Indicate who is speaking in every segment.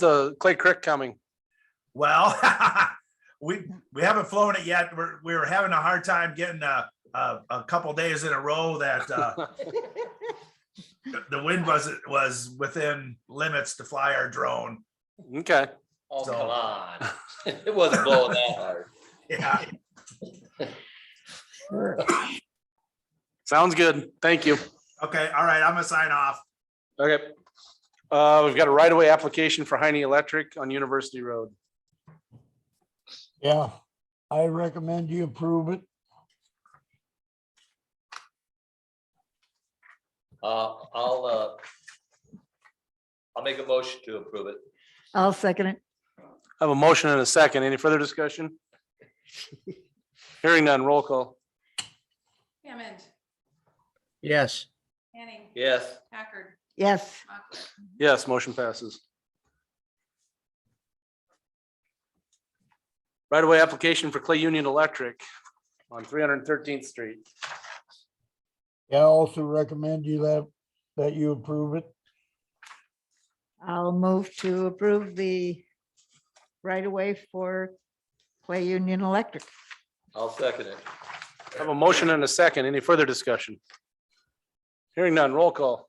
Speaker 1: the Clay Creek coming?
Speaker 2: Well, we, we haven't flown it yet. We're, we were having a hard time getting a, a, a couple days in a row that, uh, the wind was, was within limits to fly our drone.
Speaker 1: Okay,
Speaker 3: Oh,
Speaker 2: So-
Speaker 3: come on. It wasn't blowing that hard.
Speaker 2: Yeah,
Speaker 1: sounds good. Thank you.
Speaker 2: okay, all right, I'm gonna sign off.
Speaker 1: Okay. Uh, we've got a right-of-way application for Heine Electric on University Road.
Speaker 4: Yeah, I recommend you approve it.
Speaker 3: Uh, I'll, uh, I'll make a motion to approve it.
Speaker 5: I'll second it.
Speaker 1: I have a motion and a second. Any further discussion? Hearing none, roll call.
Speaker 6: Hammond.
Speaker 4: Yes.
Speaker 6: Manning.
Speaker 3: Yes,
Speaker 6: Packard.
Speaker 5: Yes,
Speaker 6: Mochler.
Speaker 1: Yes, motion passes. Right-of-way application for Clay Union Electric on three hundred and thirteenth street.
Speaker 4: Yeah, I also recommend you that, that you approve it.
Speaker 5: I'll move to approve the right of way for Clay Union Electric.
Speaker 3: I'll second it.
Speaker 1: I have a motion and a second. Any further discussion? Hearing none, roll call.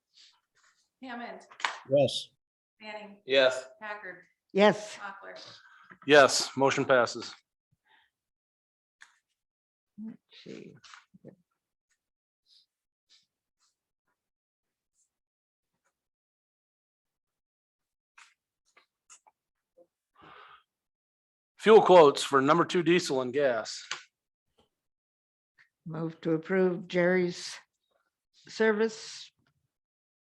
Speaker 6: Hammond.
Speaker 4: Yes.
Speaker 6: Manning.
Speaker 3: Yes,
Speaker 6: Packard.
Speaker 5: Yes,
Speaker 6: Mochler.
Speaker 1: Yes, motion passes.
Speaker 5: Gee.
Speaker 1: Fuel quotes for number two diesel and gas.
Speaker 5: move to approve Jerry's service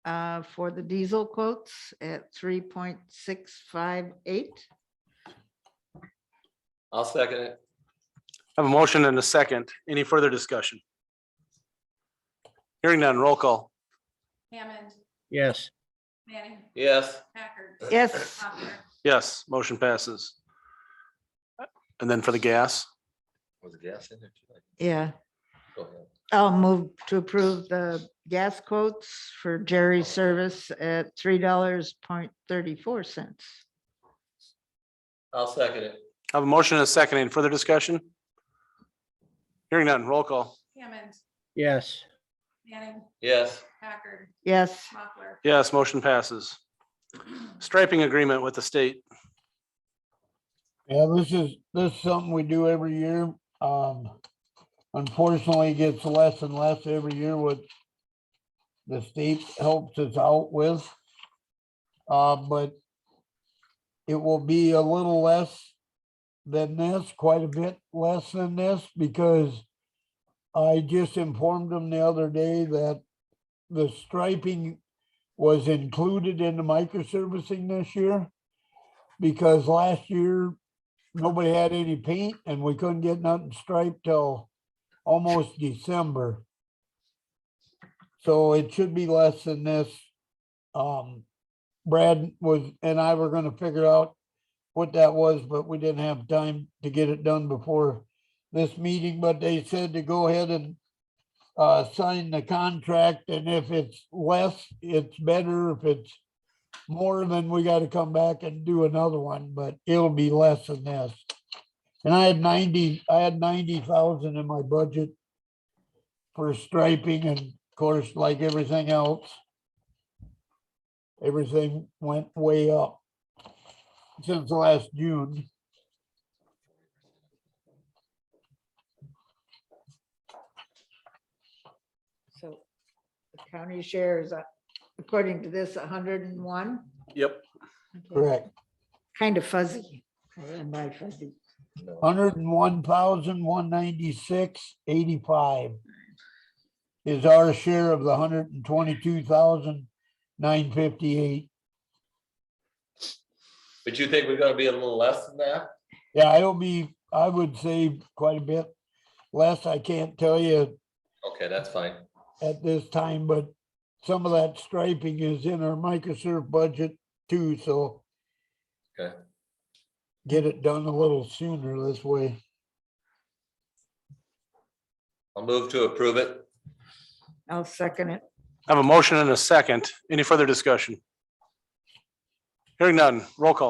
Speaker 5: uh, for the diesel quotes at three point six five eight.
Speaker 3: I'll second it.
Speaker 1: I have a motion and a second. Any further discussion? Hearing none, roll call.
Speaker 6: Hammond.
Speaker 4: Yes.
Speaker 6: Manning.
Speaker 3: Yes,
Speaker 6: Packard.
Speaker 5: Yes,
Speaker 6: Mochler.
Speaker 1: Yes, motion passes. And then for the gas,
Speaker 3: was the gas in there? too?
Speaker 5: yeah,
Speaker 3: Go ahead.
Speaker 5: I'll move to approve the gas quotes for Jerry's service at three dollars point thirty-four cents.
Speaker 3: I'll second it.
Speaker 1: I have a motion and a second. Any further discussion? Hearing none, roll call.
Speaker 6: Hammond.
Speaker 4: Yes.
Speaker 6: Manning.
Speaker 3: Yes,
Speaker 6: Packard.
Speaker 5: Yes.
Speaker 6: Mochler.
Speaker 1: Yes, motion passes. Striping agreement with the state.
Speaker 4: Yeah, this is, this is something we do every year. Um, unfortunately, it gets less and less every year what the state helps us out with. Uh, but it will be a little less than this, quite a bit less than this, because I just informed them the other day that the striping was included in the microservicing this year. Because last year, nobody had any paint and we couldn't get nothing striped till almost December. So it should be less than this. Um, Brad was, and I were gonna figure out what that was, but we didn't have time to get it done before this meeting, but they said to go ahead and uh, sign the contract and if it's less, it's better. If it's more than we gotta come back and do another one, but it'll be less than this. And I had ninety, I had ninety thousand in my budget for striping and of course, like everything else, everything went way up since last June.
Speaker 5: So the county share is, uh, according to this, hundred and one?
Speaker 1: Yep.
Speaker 4: Correct.
Speaker 5: Kind of fuzzy. Am I fuzzy?
Speaker 4: Hundred and one thousand, one ninety-six, eighty-five is our share of the hundred and twenty-two thousand, nine fifty-eight.
Speaker 3: but you think we're gonna be a little less than that?
Speaker 4: Yeah, it'll be, I would say quite a bit less. I can't tell you
Speaker 3: Okay, that's fine.
Speaker 4: at this time, but some of that striping is in our microserve budget too, so.
Speaker 3: Okay.
Speaker 4: Get it done a little sooner this way.
Speaker 3: I'll move to approve it.
Speaker 5: I'll second it.
Speaker 1: I have a motion and a second. Any further discussion? Hearing none, roll call.